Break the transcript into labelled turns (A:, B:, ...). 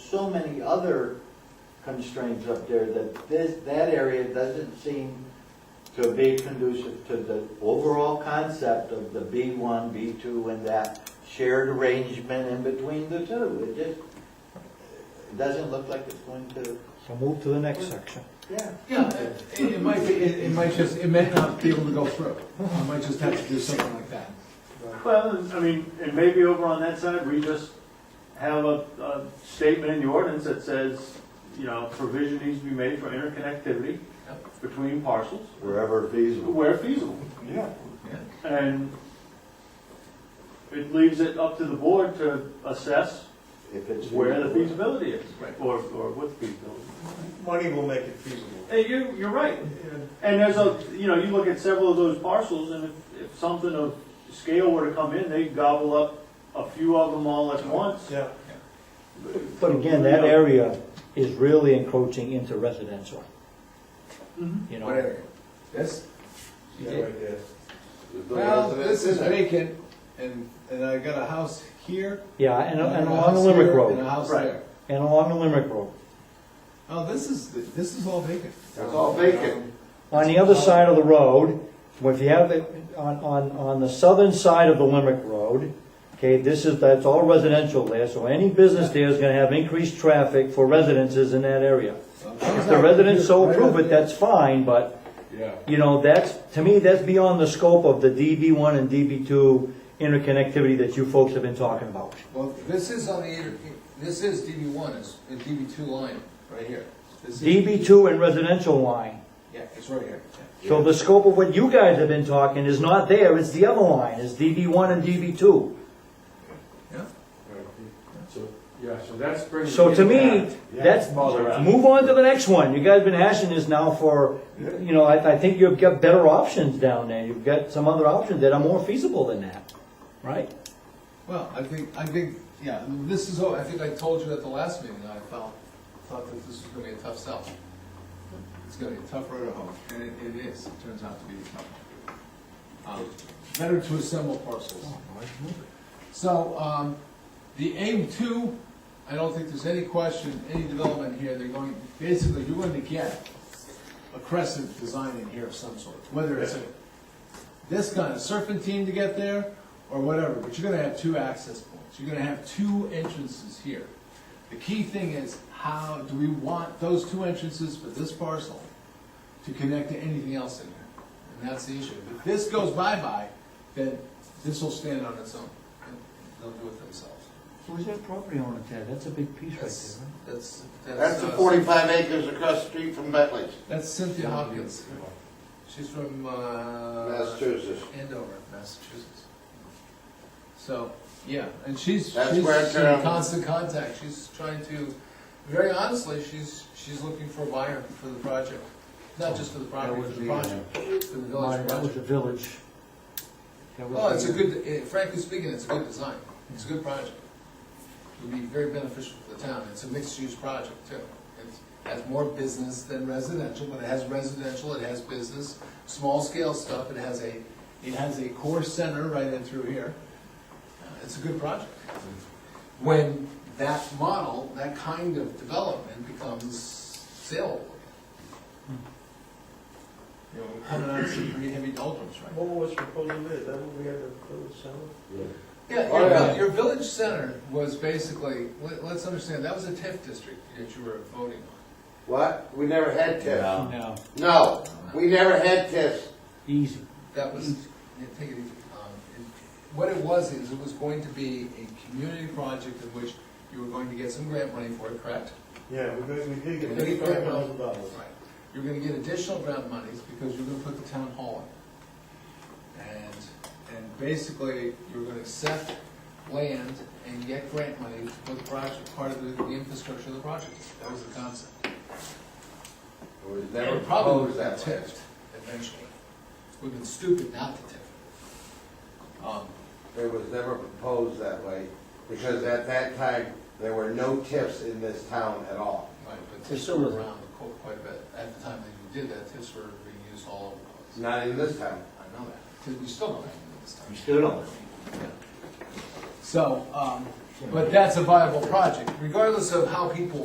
A: so many other constraints up there that this, that area doesn't seem to be conducive to the overall concept of the B one, B two, and that shared arrangement in between the two. It just it doesn't look like it's going to,
B: So move to the next section.
A: yeah.
C: Yeah, it, it might be, it, it might just, it might not be able to go through. I might just have to do something like that.
D: Well, I mean, and maybe over on that side, we just have a, a statement in the ordinance that says, you know, provision needs to be made for interconnectivity between parcels
A: Wherever feasible.
D: where feasible.
A: Yeah.
D: And it leaves it up to the board to assess
A: If it's.
D: where the
A: feasible.
D: feasibility is,
C: Right.
D: or, or what the feasibility.
E: Money will make it feasible.
D: Hey, you, you're right. And there's a, you know, you look at several of those parcels, and if, if something of scale were to come in, they gobble up a few of them all at once.
E: Yeah.
B: But again, that area is really encroaching into residential,
D: Mhm.
B: you know.
C: Whatever. That's,
E: Yeah, right there.
C: well, this is vacant, and, and I got a house here.
B: Yeah, and,
C: a
B: and along
C: house
B: the Limerick
C: here, And a
B: Road,
C: house
D: Right.
C: there.
B: and along the Limerick Road.
C: Oh, this is, this is all vacant.
A: It's all vacant.
B: On the other side of the road, well, if you have it, on, on, on the southern side of the Limerick Road, okay, this is, that's all residential there, so any business there is gonna have increased traffic for residences in that area. If the residents so approve it, that's fine, but
C: Yeah.
B: you know, that's, to me, that's beyond the scope of the DB1 and DB2 interconnectivity that you folks have been talking about.
C: Well, this is on the, inter- this is DB one, is the DB two line, right here. This is-
B: DB2 and residential line.
C: Yeah, it's right here.
B: So the scope of what you guys have been talking is not there, it's the other line, it's DB1 and DB2.
C: Yeah.
F: So, yeah, so that's bringing.
B: So to
F: it
B: me,
F: back.
B: that's, move on to the next one. You guys have been hashing this now for, you know, I, I think you've got better options down there. You've got some other options that are more feasible than that, right?
C: Well, I think, I think, yeah, this is, all- I think I told you at the last meeting, I felt, thought that this was gonna be a tough sell. It's gonna be a tough road to hoe, and it, it is, it turns out to be tough. Um, Better to assemble parcels. So, um, the aim two, I don't think there's any question, any development here, they're going, basically, you're going to get a crescent design in here of some sort, whether it's a this kind of serpentine to get there, or whatever, but you're gonna have two access points, you're gonna have two entrances here. The key thing is, how do we want those two entrances for this parcel to connect to anything else in there? And that's the issue, if this goes bye-bye, then this will stand on its own, and they'll do it themselves.
B: Who's that property owner there? That's a big piece
C: That's, that's.
G: That's the
C: uh,
G: forty-five acres across the street from Bentley's,
C: That's Cynthia Hopkins, she's from, uh.
G: Massachusetts.
C: Andover, Massachusetts. So, yeah, and she's,
G: That's
C: she's
G: where it
C: in
G: turned.
C: constant contact, she's trying to, very honestly, she's, she's looking for a buyer for the project. Not just for the property, for the project, for the village
B: uh, That was the
C: project.
B: village. That was
C: Well, it's a
B: the-
C: good, eh, frankly speaking, it's a good design, it's a good project. It would be very beneficial for the town, it's a mixed-use project too. It has more business than residential, but it has residential, it has business, small-scale stuff, it has a, it has a core center right in through here. Uh, It's a good project. When that model, that kind of development becomes saleable. Hmm. You know, we're coming out of some pretty heavy doldrums right now.
E: What was proposed in there, is that what we had to put it down?
C: Yeah,
G: Oh,
C: your,
G: yeah.
C: vil- your village center was basically, let, let's understand, that was a TIF district that you were voting on.
G: What? We never had TIFs.
B: No,
G: No, we never had TIFs.
B: easy.
C: That was,
G: Mm-hmm.
C: yeah, take it easy. Um, and What it was, is it was going to be a community project in which you were going to get some grant money for it, correct?
E: Yeah, we did, we did get
C: They get
E: fifty-five
C: grant money.
E: thousand dollars.
C: Right. You're gonna get additional grant monies because you're gonna put the town hall in. And, and basically, you're gonna accept land and get grant money to put the project, part of the, the infrastructure of the project. That was the concept.
G: It was never
C: It probably would
G: proposed
C: have
G: that way.
C: tipped eventually. We've been stupid not to tip it. Um,
G: It was never proposed that way, because at that time, there were no TIFs in this town at all.
C: right, but tips were
B: Facility.
C: around qu- quite a bit. At the time that you did that, tips were being used all over the place.
G: Not in this town.
C: I know that, because we still don't have it this time.
A: You still don't.
C: So, um, But that's a viable project, regardless of how people